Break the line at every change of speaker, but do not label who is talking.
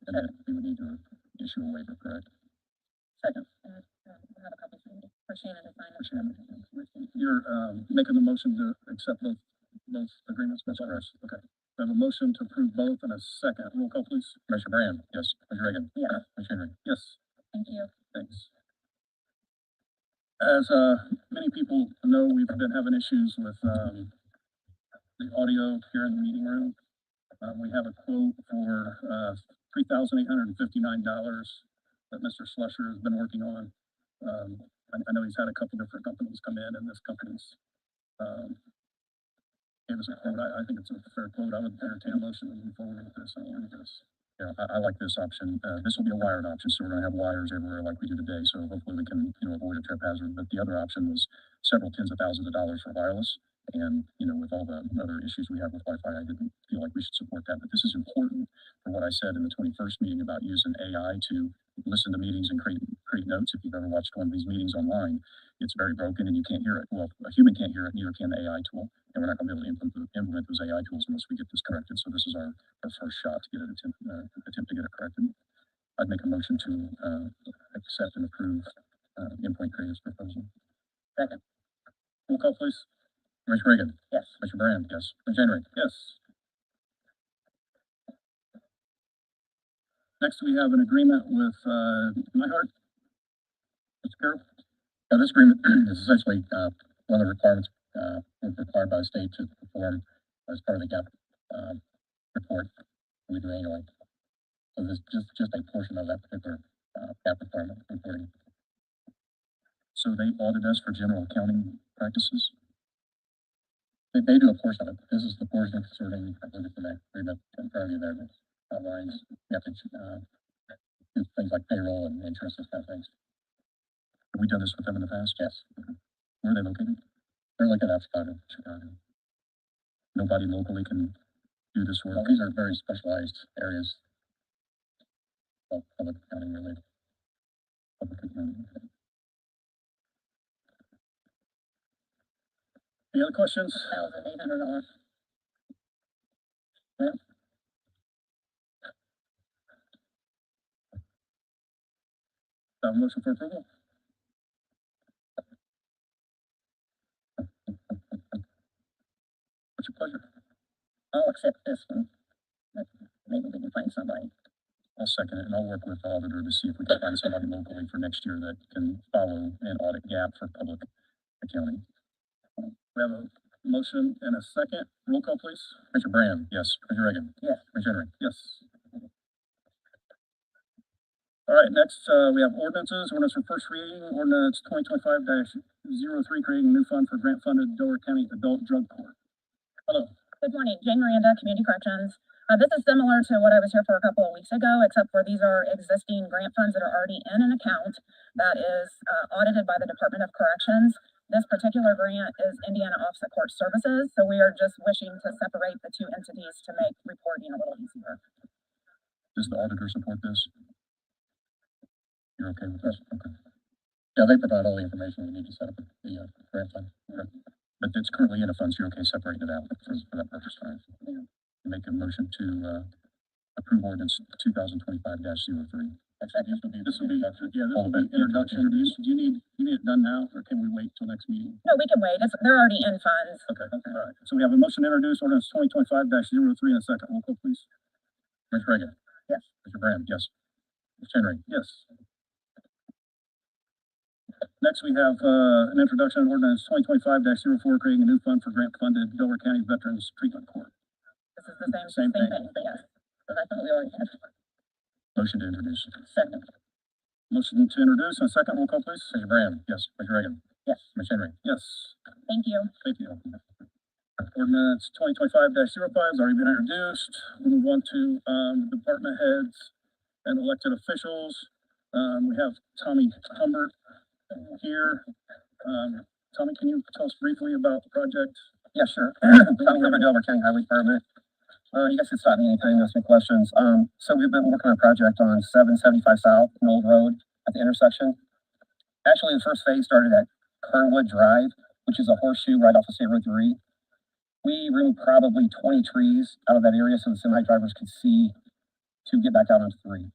additional waiver correct?
Second. And, um, we'll have a copy signed for Shannon to sign.
You're, um, making the motion to accept both, both agreements, Ms. Harris? Okay. We have a motion to approve both and a second. Roll call, please. Commissioner Brand? Yes. Commissioner Reagan?
Yeah.
Commissioner Henry? Yes.
Thank you.
Thanks. As, uh, many people know, we've been having issues with, um, the audio here in the meeting room. Um, we have a quote for, uh, three thousand eight hundred and fifty-nine dollars that Mr. Slusher has been working on. Um, I, I know he's had a couple different companies come in and this company's, um, gave us a quote. I, I think it's a fair quote. I would entertain a motion to move forward with this. I don't want this. Yeah, I, I like this option. Uh, this will be a wired option, so we're gonna have wires everywhere like we do today, so hopefully we can, you know, avoid a trip hazard. But the other option was several tens of thousands of dollars for wireless. And, you know, with all the other issues we have with Wi-Fi, I didn't feel like we should support that. But this is important for what I said in the twenty-first meeting about using AI to listen to meetings and create, create notes. If you've ever watched one of these meetings online, it's very broken and you can't hear it. Well, a human can't hear it, neither can the AI tool. And we're not gonna be able to implement, implement those AI tools unless we get this corrected. So this is our our first shot to get it attempt, uh, attempt to get it corrected. I'd make a motion to, uh, accept and approve, uh, Endpoint Creative's proposal. Second. Roll call, please. Commissioner Reagan.
Yes.
Commissioner Brand. Yes. Commissioner Henry. Yes. Next, we have an agreement with, uh, Nyhart. Mr. Carroll. Yeah, this agreement is essentially, uh, one of the requirements, uh, required by the state to perform as part of the gap, um, report we do annually. So this is just, just a portion of that particular, uh, cap requirement reporting. So they audit us for general accounting practices? They, they do a portion of it. This is the portion concerning, I believe it's in that agreement in front of you there, that outlines, you have to, uh, do things like payroll and interest and kind of things. Have we done this with them in the past? Yes. Where are they located? They're located out of Chicago, Chicago. Nobody locally can do this work. These are very specialized areas of public accounting related. Public accounting. Any other questions?
Thousand eight hundred dollars.
Uh, motion for approval? What's your pleasure? Oh,
I'll accept this one. But Maybe we can find somebody.
I'll second it, and I'll work with the auditor to see if we can find somebody locally for next year that can follow an audit gap for public accounting. We have a motion and a second. Roll call, please. Commissioner Brand. Yes. Commissioner Reagan.
Yes.
Commissioner Henry. Yes. All right, next, uh, we have ordinances. Ordinance for first reading, ordinance twenty twenty-five 3 creating new fund for grant-funded Delaware County Adult Drug Court.
Good morning, Jane Miranda, Community Corrections. Uh, this is similar to what I was here for a couple of weeks ago, except for these are existing grant funds that are already in an account that is, uh, audited by the Department of Corrections. This particular grant is Indiana Offset Court Services, so we are just wishing to separate the two entities to make reporting a little easier.
Does the auditor support this? You're okay with this? Okay. Yeah, they provide all the information we need to set up the, uh, grant fund. But it's currently in a fund, so you're okay separating it out for, for that purpose, right?
Yeah.
Make a motion to, uh, approve ordinance two thousand twenty-five dash zero three. This would be, this would be, yeah, this would be introduction. Do you, do you need, you need it done now, or can we wait till next meeting?
No, we can wait, it's, they're already in funds.
Okay, all right. So we have a motion to introduce ordinance twenty twenty-five 3 in a second. Roll call, please. Commissioner Reagan.
Yes.
Mr. Brand. Yes. Mr. Henry. Yes. Next, we have, uh, an introduction on ordinance twenty twenty-five 4 creating a new fund for grant-funded Delaware County Veterans Treatment Court.
This is the same,
Same
same
thing.
thing, yes. But I thought we already had
Motion to introduce.
second.
Motion to introduce and a second. Roll call, please. Commissioner Brand. Yes. Commissioner Reagan.
Yes.
Commissioner Henry. Yes.
Thank you.
Thank you. Ordinance twenty twenty-five 5 has already been introduced. We move on to, um, department heads and elected officials. Um, we have Tommy Humbert here. Um, Tommy, can you tell us briefly about the project?
Yeah, sure. Tommy Hubbard, Delaware County Highway Department. Uh, you guys can stop me anytime you ask me questions. Um, so we've been working on a project on seven seventy-five South, an old road at the intersection. Actually, the first phase started at Kernwood Drive, which is a horseshoe right off of State Road three. We removed probably twenty trees out of that area so the semi drivers could see to get back out onto three.